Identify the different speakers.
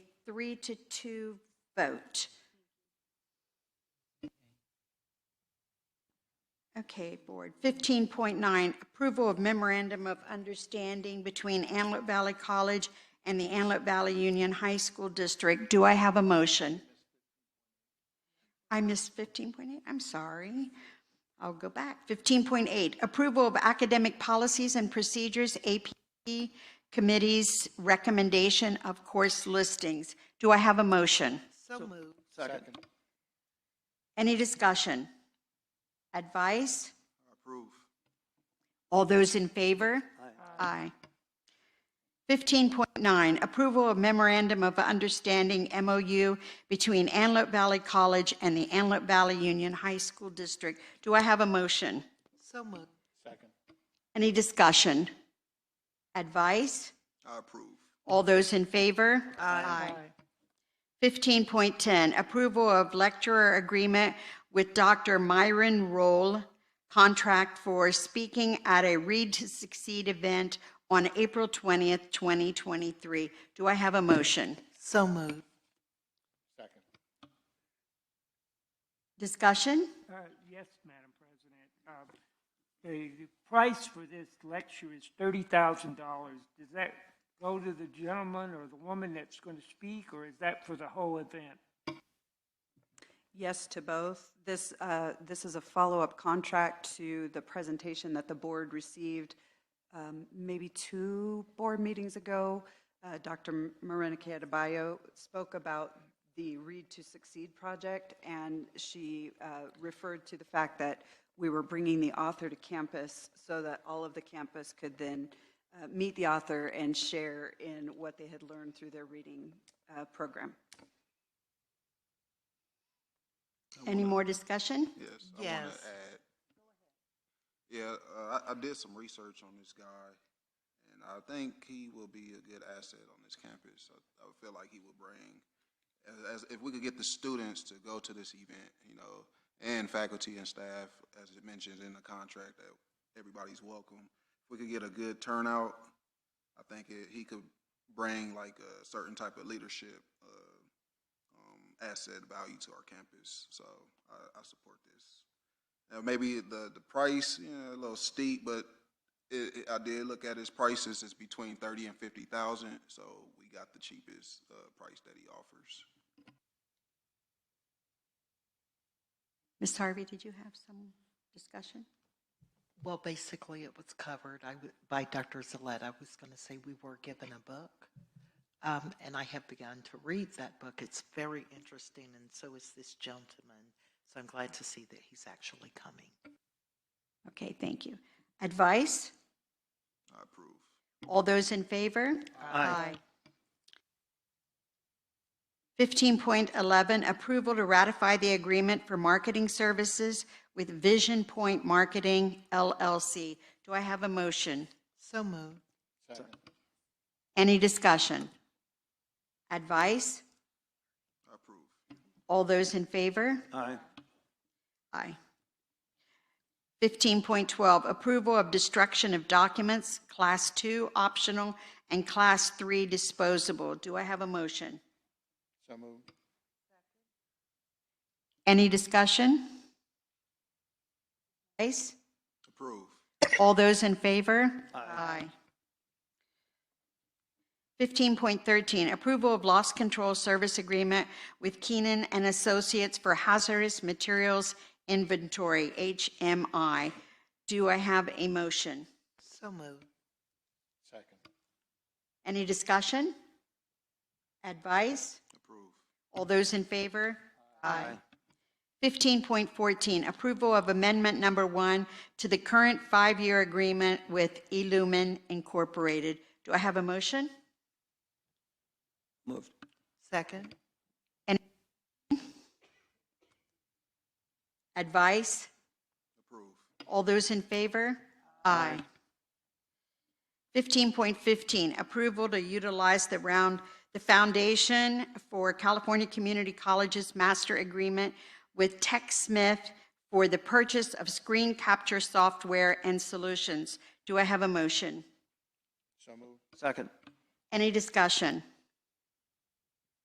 Speaker 1: three to two vote. Okay, Board. 15.9, approval of memorandum of understanding between Antelope Valley College and the Antelope Valley Union High School District. Do I have a motion? I missed 15.8, I'm sorry. I'll go back. 15.8, approval of academic policies and procedures, AP committee's recommendation of course listings. Do I have a motion?
Speaker 2: So moved.
Speaker 3: Second.
Speaker 1: Any discussion? Advice?
Speaker 3: Approve.
Speaker 1: All those in favor? Aye. 15.9, approval of memorandum of understanding MOU between Antelope Valley College and the Antelope Valley Union High School District. Do I have a motion?
Speaker 2: So moved.
Speaker 3: Second.
Speaker 1: Any discussion? Advice?
Speaker 3: I approve.
Speaker 1: All those in favor? Aye. 15.10, approval of lecturer agreement with Dr. Myron Roll, contract for speaking at a Read to Succeed event on April 20th, 2023. Do I have a motion?
Speaker 2: So moved.
Speaker 3: Second.
Speaker 1: Discussion?
Speaker 4: Uh, Yes, Madam President. Um, The the price for this lecture is $30,000. Does that go to the gentleman or the woman that's going to speak, or is that for the whole event?
Speaker 5: Yes to both. This, uh, this is a follow-up contract to the presentation that the board received um, maybe two board meetings ago. Uh, Dr. Marinaki Adebayo spoke about the Read to Succeed project, and she uh, referred to the fact that we were bringing the author to campus so that all of the campus could then uh, meet the author and share in what they had learned through their reading uh, program.
Speaker 1: Any more discussion?
Speaker 3: Yes. I wanna
Speaker 2: Yes.
Speaker 3: add- Yeah, uh, I, I did some research on this guy, and I think he will be a good asset on this campus. I, I feel like he will bring, as, as, if we could get the students to go to this event, you know, and faculty and staff, as it mentions in the contract, that everybody's welcome. If we could get a good turnout, I think it, he could bring like a certain type of leadership, uh, um, asset value to our campus. So I, I support this. Now, maybe the, the price, you know, a little steep, but it, it, I did look at his prices. It's between thirty and fifty thousand, so we got the cheapest uh, price that he offers.
Speaker 1: Ms. Harvey, did you have some discussion?
Speaker 2: Well, basically, it was covered I w- by Dr. Zalet. I was going to say we were given a book, um, and I have begun to read that book. It's very interesting, and so is this gentleman. So I'm glad to see that he's actually coming.
Speaker 1: Okay, thank you. Advice?
Speaker 3: I approve.
Speaker 1: All those in favor? Aye. 15.11, approval to ratify the agreement for marketing services with Vision Point Marketing LLC. Do I have a motion?
Speaker 2: So moved.
Speaker 1: Any discussion? Advice?
Speaker 3: I approve.
Speaker 1: All those in favor?
Speaker 3: Aye.
Speaker 1: Aye. 15.12, approval of destruction of documents, Class 2 optional and Class 3 disposable. Do I have a motion?
Speaker 3: So moved.
Speaker 1: Any discussion? Advice?
Speaker 3: Approve.
Speaker 1: All those in favor? Aye. 15.13, approval of loss control service agreement with Keenan and Associates for hazardous materials inventory, HMI. Do I have a motion?
Speaker 2: So moved.
Speaker 3: Second.
Speaker 1: Any discussion? Advice?
Speaker 3: Approve.
Speaker 1: All those in favor? Aye. 15.14, approval of amendment number one to the current five-year agreement with Illumin Incorporated. Do I have a motion?
Speaker 2: Second.
Speaker 1: Advice?
Speaker 3: Approve.
Speaker 1: All those in favor? Aye. 15.15, approval to utilize the round, the Foundation for California Community Colleges Master Agreement with Tech Smith for the purchase of screen capture software and solutions. Do I have a motion?
Speaker 3: So moved. Second.
Speaker 1: Any discussion?